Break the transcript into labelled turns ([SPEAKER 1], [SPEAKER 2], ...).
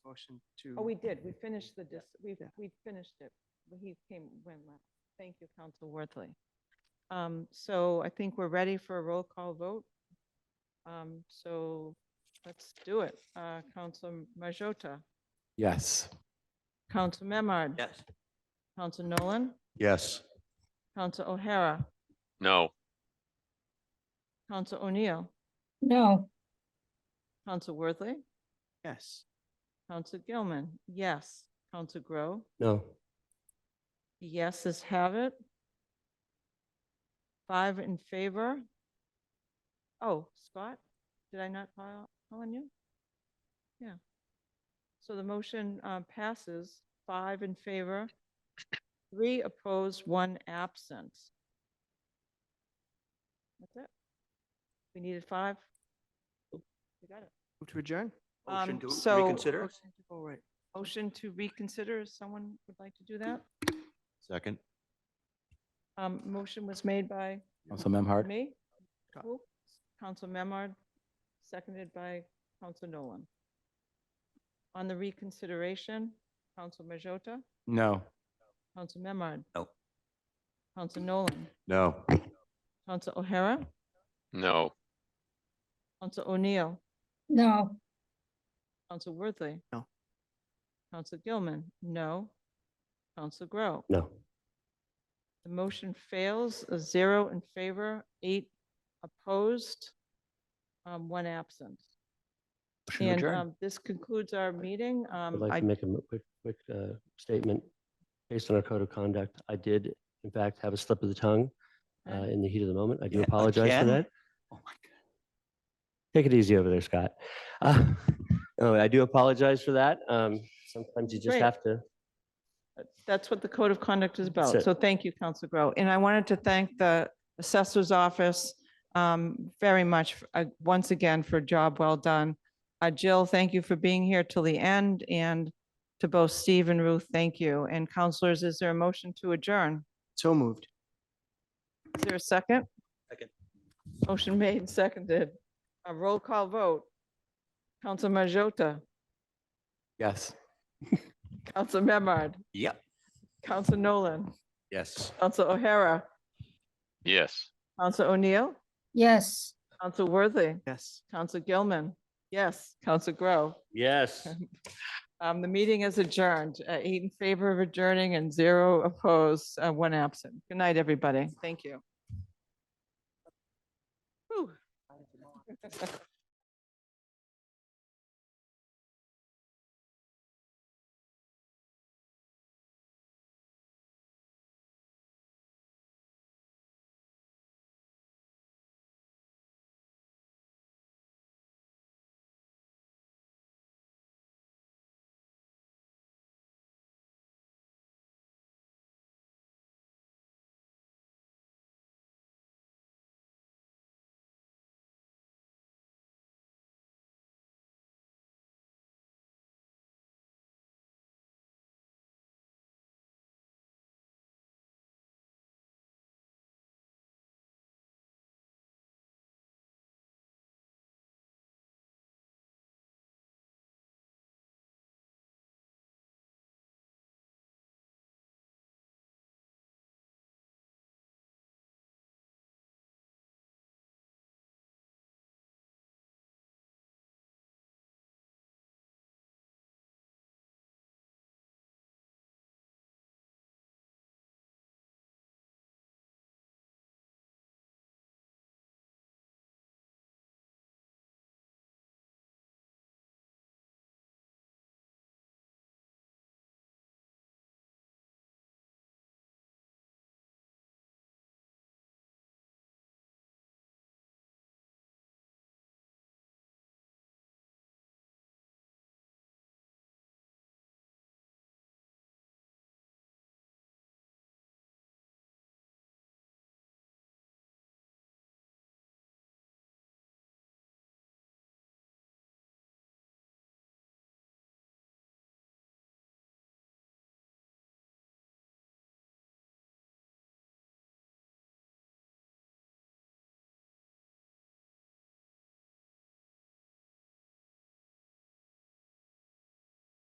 [SPEAKER 1] motion to.
[SPEAKER 2] Oh, we did. We finished the, dis- we,
[SPEAKER 1] Yeah.
[SPEAKER 2] we finished it. but He came, when last. Thank you, Council Worthley. Um, so I think we're ready for a roll call vote. Um, so let's do it. Uh, Council Majota,
[SPEAKER 3] Yes.
[SPEAKER 2] Council Memard.
[SPEAKER 1] Yes.
[SPEAKER 2] Council Nolan,
[SPEAKER 4] Yes.
[SPEAKER 2] Council O'Hara,
[SPEAKER 5] No,
[SPEAKER 2] Council O'Neill,
[SPEAKER 6] No,
[SPEAKER 2] Council Worthley,
[SPEAKER 1] Yes.
[SPEAKER 2] Council Gilman, yes. Council Grow,
[SPEAKER 3] No.
[SPEAKER 2] yeses have it. Five in favor. Oh, Scott, did I not call call on you? Yeah. So the motion uh, passes, five in favor, three opposed, one absent. That's it. We needed five. Oh, We got it.
[SPEAKER 1] Move to adjourn?
[SPEAKER 2] Um,
[SPEAKER 4] Motion to
[SPEAKER 2] so-
[SPEAKER 4] reconsider?
[SPEAKER 1] All right.
[SPEAKER 2] Motion to reconsider, someone would like to do that?
[SPEAKER 4] Second.
[SPEAKER 2] Um, motion was made by
[SPEAKER 3] Also, Memhard?
[SPEAKER 2] me,
[SPEAKER 1] Scott.
[SPEAKER 2] who? Council Memard, seconded by Council Nolan. On the reconsideration, Council Majota,
[SPEAKER 3] No.
[SPEAKER 2] Council Memard.
[SPEAKER 4] No.
[SPEAKER 2] Council Nolan,
[SPEAKER 4] No.
[SPEAKER 2] Council O'Hara,
[SPEAKER 5] no.
[SPEAKER 2] Council O'Neill,
[SPEAKER 6] no.
[SPEAKER 2] Council Worthley.
[SPEAKER 1] No.
[SPEAKER 2] Council Gilman, no. Council Grow.
[SPEAKER 3] No.
[SPEAKER 2] The motion fails, uh, zero in favor, eight opposed, um, one absent.
[SPEAKER 3] Motion to
[SPEAKER 2] And
[SPEAKER 3] adjourn.
[SPEAKER 2] um, this concludes our meeting.
[SPEAKER 7] I'd
[SPEAKER 2] Um,
[SPEAKER 7] like
[SPEAKER 2] I-
[SPEAKER 7] to make a mo- quick, quick uh, statement. Based on our code of conduct, I did in fact have a slip of the tongue
[SPEAKER 2] Okay.
[SPEAKER 7] uh, in the heat of the moment. I do
[SPEAKER 4] Yeah,
[SPEAKER 7] apologize for
[SPEAKER 4] again?
[SPEAKER 7] that.
[SPEAKER 4] Oh, my God.
[SPEAKER 7] Take it easy over there, Scott. Uh, No, I do apologize for that. Um, Sometimes you just
[SPEAKER 2] Great.
[SPEAKER 7] have to.
[SPEAKER 2] That's what the code of conduct is
[SPEAKER 7] That's
[SPEAKER 2] about.
[SPEAKER 7] it.
[SPEAKER 2] So thank you, Council Grow. And I wanted to thank the assessor's office um, very much, uh, once again, for a job well done. Uh, Jill, thank you for being here till the end, and to both Steve and Ruth, thank you. And counselors, is there a motion to adjourn?
[SPEAKER 1] So moved.
[SPEAKER 2] Is there a second?
[SPEAKER 4] Second.
[SPEAKER 2] Motion made, and seconded. A roll call vote. Council Majota,
[SPEAKER 3] Yes.
[SPEAKER 2] Council Memard,
[SPEAKER 4] Yep.
[SPEAKER 2] Council Nolan,
[SPEAKER 4] Yes.
[SPEAKER 2] Council O'Hara,
[SPEAKER 5] Yes.
[SPEAKER 2] Council O'Neill,
[SPEAKER 6] Yes.
[SPEAKER 2] Council Worthy,
[SPEAKER 1] Yes.
[SPEAKER 2] Council Gilman, yes, Council Grow.
[SPEAKER 7] Yes.
[SPEAKER 2] Um, the meeting is adjourned, Uh, eight in favor of adjourning and zero opposed, uh, one absent. Good night, everybody. Thank you. Whew.